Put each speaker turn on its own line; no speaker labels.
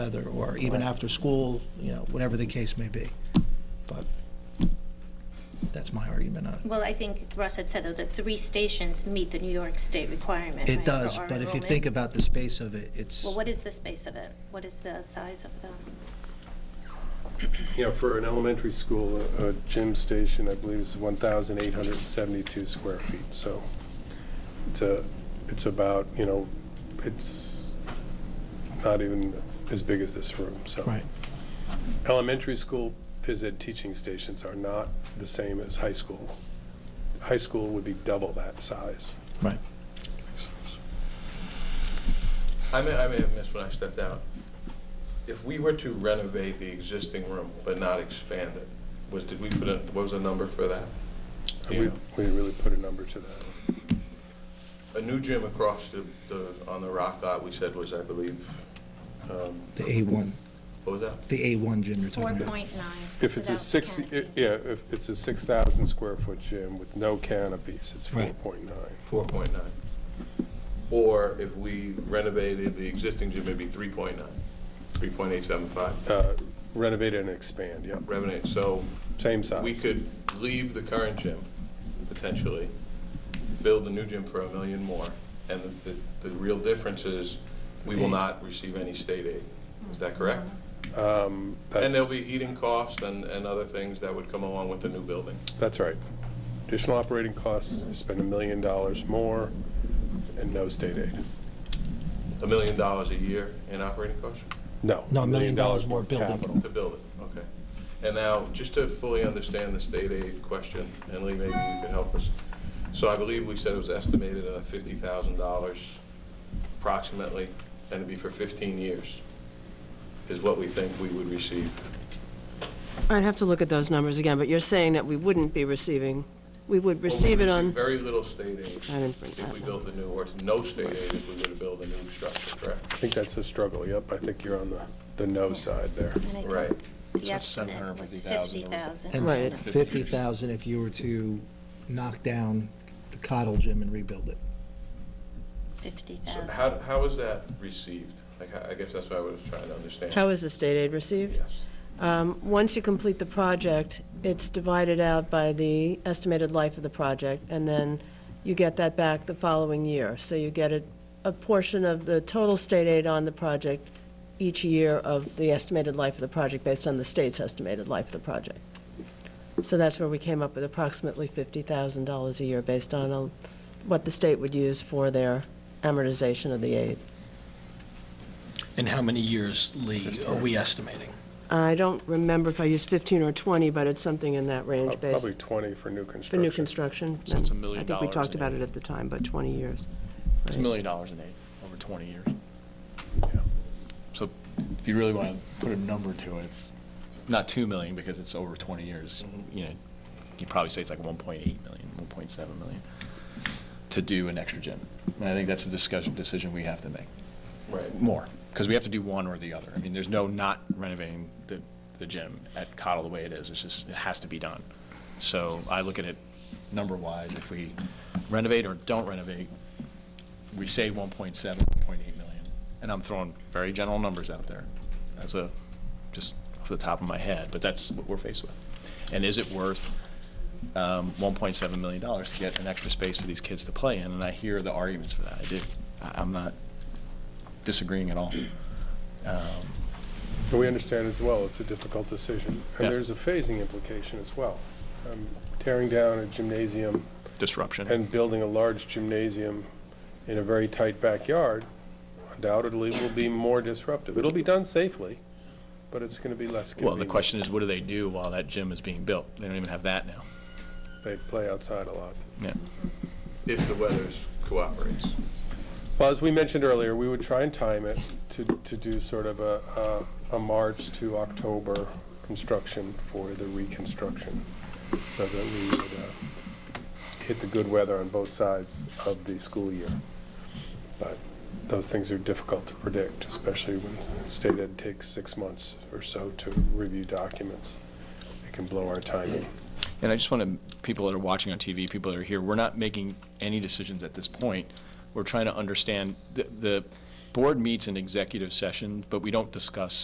weather, or even after school, you know, whatever the case may be. But that's my argument on it.
Well, I think Russ had said, though, that three stations meet the New York State requirement.
It
right, for
does,
our
but if you
enrollment.
think about the space of it, it's,
Well, what is the space of it? What is the size of the,
You know, for an elementary school, a a gym station, I believe, is 1,872 square feet, so it's a, it's about, you know, it's not even as big as this room, so.
right,
Elementary school phys ed teaching stations are not the same as high school. High school would be double that size.
right.
I may, I may have missed when I stepped out. If we were to renovate the existing room but not expand it, was, did we put a, what was the number for that? Do you
We
know?
we really put a number to that.
A new gym across the, the, on the rock lot, we said was, I believe, um,
The A1,
what was that?
the A1 gym you're
four
talking about.
point nine?
If it's a 60, i- yeah, if it's a 6,000 square foot gym with no canopies, it's
Right.
4.9.
Four point nine. Or if we renovated the existing gym, maybe three point nine, three point eight seven five.
Uh, Renovate and expand, yeah.
Renovate, so
Same size.
we could leave the current gym, potentially, build a new gym for a million more, and the, the- the real difference is, we will not receive any state aid. Is that correct?
Um,
And there'll
That's,
be heating costs and, and other things that would come along with the new building.
that's right. Additional operating costs, spend a million dollars more, and no state aid.
A million dollars a year in operating costs
No.
No, a million dollars more building.
capital.
to build it, okay. And now, just to fully understand the state aid question, and Lee, maybe you could help us. So I believe we said it was estimated at fifty thousand dollars approximately, and it'd be for fifteen years, is what we think we would receive.
I'd have to look at those numbers again, but you're saying that we wouldn't be receiving, we would receive it on,
Very little state aid
I didn't print
if we
that.
built a new, or no state aid if we were to build a new structure,
I
correct?
think that's the struggle, yep. I think you're on the, the no side there.
Right.
The estimate was fifty thousand.
And
Right.
50,000 if you were to knock down the Cottle Gym and rebuild it.
Fifty
So
thousand.
how, how is that received? Like, I I guess that's what I was trying to understand.
how is the state aid received?
Yes.
Um, Once you complete the project, it's divided out by the estimated life of the project, and then you get that back the following year. So you get a, a portion of the total state aid on the project each year of the estimated life of the project based on the state's estimated life of the project. So that's where we came up with approximately $50,000 a year based on uh, what the state would use for their amortization of the aid.
And how many years, Lee, are we estimating?
I don't remember if I used 15 or 20, but it's something in that range based
Probably 20 for new
For new
construction.
construction.
So it's a
and
million
I think we
dollars
talked
in
about it at the time, but 20 years.
It's a
right?
million dollars in aid over 20 years. So if you really want to put a number to it, it's not 2 million because it's over 20 years. You know, you'd probably say it's like 1.8 million, 1.7 million to do an extra gym. And I think that's a discussion, decision we have to make,
Right.
more, because we have to do one or the other. I mean, there's no not renovating the, the gym at Cottle the way it is. It's just, it has to be done. So I look at it number-wise, if we renovate or don't renovate, we save 1.7, 1.8 million. And I'm throwing very general numbers out there as a, just off the top of my head, but that's what we're faced with. And is it worth um, 1.7 million dollars to get an extra space for these kids to play in? And I hear the arguments for that. I do. I- I'm not disagreeing at all. Um,
And we understand as well, it's a difficult decision.
Yeah.
And there's a phasing implication as well. Um, Tearing down a gymnasium
Disruption.
and building a large gymnasium in a very tight backyard undoubtedly will be more disruptive. It'll be done safely, but it's going to be less
Well,
convenient.
the question is, what do they do while that gym is being built? They don't even have that now.
They play outside a lot.
Yeah.
If the weather cooperates.
Well, as we mentioned earlier, we would try and time it to, to do sort of a, a, a March to October construction for the reconstruction, so that we would uh, hit the good weather on both sides of the school year. But those things are difficult to predict, especially when state ed takes six months or so to review documents. It can blow our timing.
And I just want to, people that are watching on TV, people that are here, we're not making any decisions at this point. We're trying to understand the- the, board meets in executive session, but we don't discuss